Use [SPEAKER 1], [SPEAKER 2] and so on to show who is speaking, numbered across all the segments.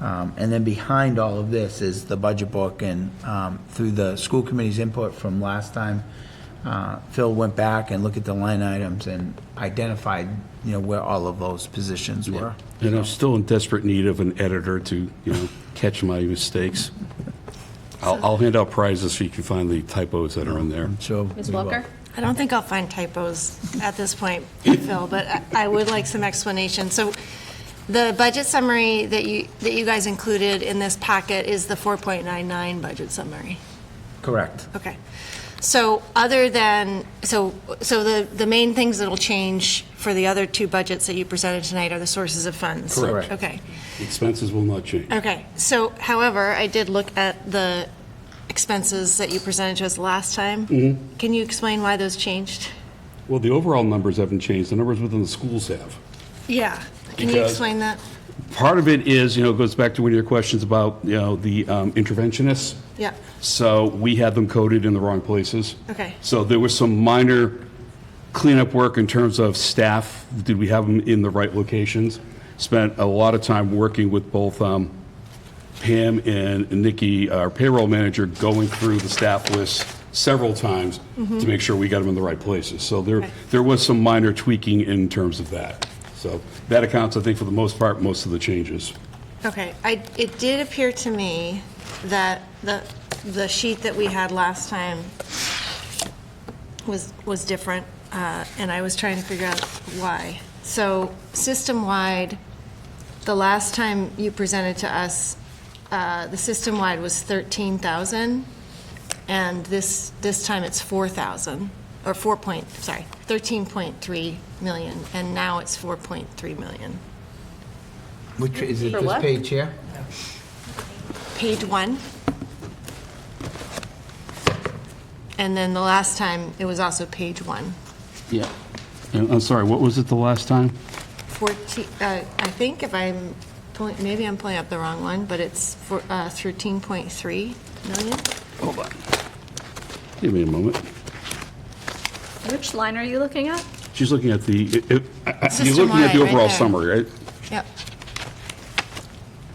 [SPEAKER 1] Um, And then behind all of this is the budget book, and um, through the school committee's input from last time, uh, Phil went back and looked at the line items and identified, you know, where all of those positions were.
[SPEAKER 2] And I'm still in desperate need of an editor to, you know, catch my mistakes. I'll, I'll hand out prizes so you can find the typos that are in there.
[SPEAKER 1] So.
[SPEAKER 3] Ms.
[SPEAKER 1] we will.
[SPEAKER 3] Welker?
[SPEAKER 4] I don't think I'll find typos at this point, Phil, but I- I would like some explanation. So the budget summary that you, that you guys included in this packet is the 4.99 budget summary.
[SPEAKER 1] Correct.
[SPEAKER 4] Okay. So other than, so, so the, the main things that'll change for the other two budgets that you presented tonight are the sources of funds?
[SPEAKER 1] Correct.
[SPEAKER 4] Okay.
[SPEAKER 2] Expenses will not change.
[SPEAKER 4] Okay, so however, I did look at the expenses that you presented to us last time. Can you explain why those changed?
[SPEAKER 2] Well, the overall numbers haven't changed, the numbers within the schools have.
[SPEAKER 4] Yeah. Can you
[SPEAKER 2] Because-
[SPEAKER 4] explain that?
[SPEAKER 2] Part of it is, you know, it goes back to one of your questions about, you know, the um, interventionists.
[SPEAKER 4] Yeah.
[SPEAKER 2] So we had them coded in the wrong places.
[SPEAKER 4] Okay.
[SPEAKER 2] So there was some minor cleanup work in terms of staff. Did we have them in the right locations? Spent a lot of time working with both um, Pam and Nikki, our payroll manager, going through the staff list several times to make sure we got them in the right places. So there,
[SPEAKER 4] Okay.
[SPEAKER 2] there was some minor tweaking in terms of that. So that accounts, I think, for the most part, most of the changes.
[SPEAKER 4] Okay, I, it did appear to me that the, the sheet that we had last time was, was different, uh, and I was trying to figure out why. So, system-wide, the last time you presented to us, uh, the system-wide was 13,000, and this, this time it's 4,000, or 4 point, sorry, 13.3 million, and now it's 4.3 million.
[SPEAKER 1] Which, is it
[SPEAKER 3] For
[SPEAKER 1] this
[SPEAKER 3] what?
[SPEAKER 1] page here?
[SPEAKER 4] page one. And then the last time, it was also page one.
[SPEAKER 2] Yeah. I'm sorry, what was it the last time?
[SPEAKER 4] 14, uh, I think if I'm, pulling- maybe I'm pulling up the wrong one, but it's for, uh, 13.3 million?
[SPEAKER 2] Hold on. Give me a moment.
[SPEAKER 3] Which line are you looking at?
[SPEAKER 2] She's looking at the, it- it- I- I- you're looking at
[SPEAKER 4] System-wide,
[SPEAKER 2] the
[SPEAKER 4] right
[SPEAKER 2] overall
[SPEAKER 4] there.
[SPEAKER 2] summary, right?
[SPEAKER 4] Yep.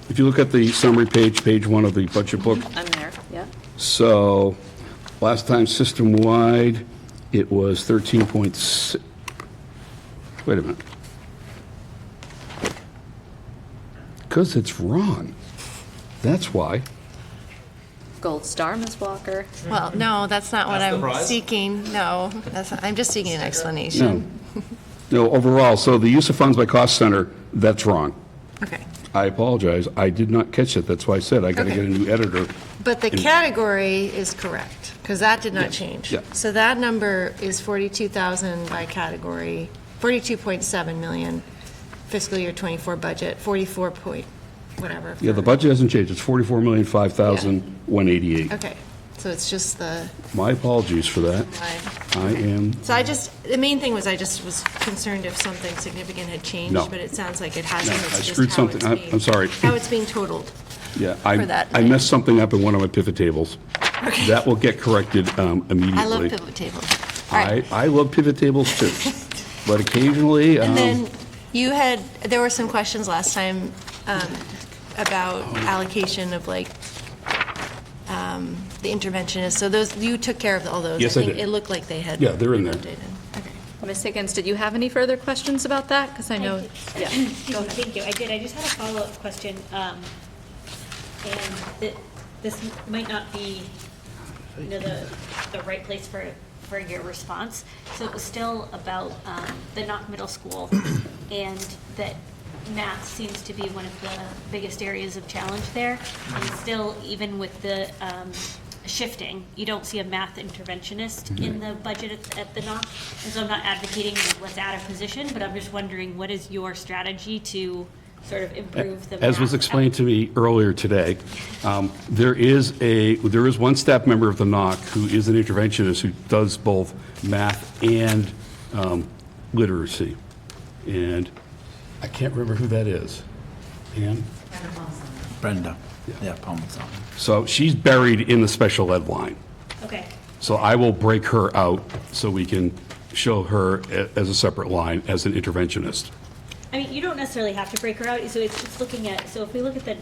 [SPEAKER 2] If you look at the summary page, page one of the budget book,
[SPEAKER 3] I'm there, yeah.
[SPEAKER 2] so last time system-wide, it was 13.6, wait a minute. Because it's wrong. That's why.
[SPEAKER 3] Gold star, Ms. Walker.
[SPEAKER 4] Well, no, that's not what
[SPEAKER 5] That's the
[SPEAKER 4] I'm
[SPEAKER 5] prize?
[SPEAKER 4] seeking. No, that's, not- I'm just seeking an explanation.
[SPEAKER 2] No. No, overall, so the use of funds by cost center, that's wrong.
[SPEAKER 4] Okay.
[SPEAKER 2] I apologize, I did not catch it, that's why I said I gotta
[SPEAKER 4] Okay.
[SPEAKER 2] get a new editor.
[SPEAKER 4] But the category is correct, because that did not
[SPEAKER 2] Yes,
[SPEAKER 4] change.
[SPEAKER 2] yeah.
[SPEAKER 4] So that number is 42,000 by category, 42.7 million fiscal year '24 budget, 44 point, whatever.
[SPEAKER 2] Yeah, the
[SPEAKER 4] for-
[SPEAKER 2] budget hasn't changed, it's forty-four million, five thousand, one eighty-eight.
[SPEAKER 4] Okay, so it's just the
[SPEAKER 2] My apologies for that.
[SPEAKER 4] line.
[SPEAKER 2] I am,
[SPEAKER 4] So I just, the main thing was I just was concerned if something significant had changed,
[SPEAKER 2] No.
[SPEAKER 4] but it sounds like it hasn't.
[SPEAKER 2] no,
[SPEAKER 4] It's
[SPEAKER 2] I
[SPEAKER 4] just
[SPEAKER 2] screwed
[SPEAKER 4] how
[SPEAKER 2] something,
[SPEAKER 4] it's
[SPEAKER 2] I-
[SPEAKER 4] being-
[SPEAKER 2] I'm sorry.
[SPEAKER 4] How it's being totaled.
[SPEAKER 2] Yeah,
[SPEAKER 4] for
[SPEAKER 2] I,
[SPEAKER 4] that
[SPEAKER 2] I
[SPEAKER 4] line.
[SPEAKER 2] messed something up in one of my pivot tables.
[SPEAKER 4] Okay.
[SPEAKER 2] That will get corrected um, immediately.
[SPEAKER 4] I love pivot tables. All right.
[SPEAKER 2] I, I love pivot tables too, but occasionally,
[SPEAKER 4] And
[SPEAKER 2] um,
[SPEAKER 4] then you had, there were some questions last time um, about allocation of like um, the interventionist. So those, you took care of all those.
[SPEAKER 2] Yes, I
[SPEAKER 4] think
[SPEAKER 2] did.
[SPEAKER 4] It looked like they had.
[SPEAKER 2] Yeah, they're in there.
[SPEAKER 4] updated. Okay.
[SPEAKER 3] Ms. Higgins, did you have any further questions about that? Because I know, yeah.
[SPEAKER 6] Excuse me, Thank you, I did, I just had a follow-up question, um, and th- this might not be, you know, the, the right place for, for your response. So it was still about, um, the Knock Middle School, and that math seems to be one of the biggest areas of challenge there. And
[SPEAKER 2] Mm-hmm.
[SPEAKER 6] still, even with the, um, shifting, you don't see a math interventionist
[SPEAKER 2] Mm-hmm.
[SPEAKER 6] in the budget at, at the Knock. And so I'm not advocating like, let's add a position, but I'm just wondering, what is your strategy to sort of improve the math?
[SPEAKER 2] as was explained to me earlier today, um, there is a, there is one staff member of the NOC who is an interventionist who does both math and um, literacy. And I can't remember who that is. Pam?
[SPEAKER 1] Brenda. Yeah, Palmer's on.
[SPEAKER 2] So she's buried in the special ed line.
[SPEAKER 6] Okay,
[SPEAKER 2] So I will break her out so we can show her a- as a separate line as an interventionist.
[SPEAKER 6] I mean, you don't necessarily have to break her out, so it's just looking at, so if we look at the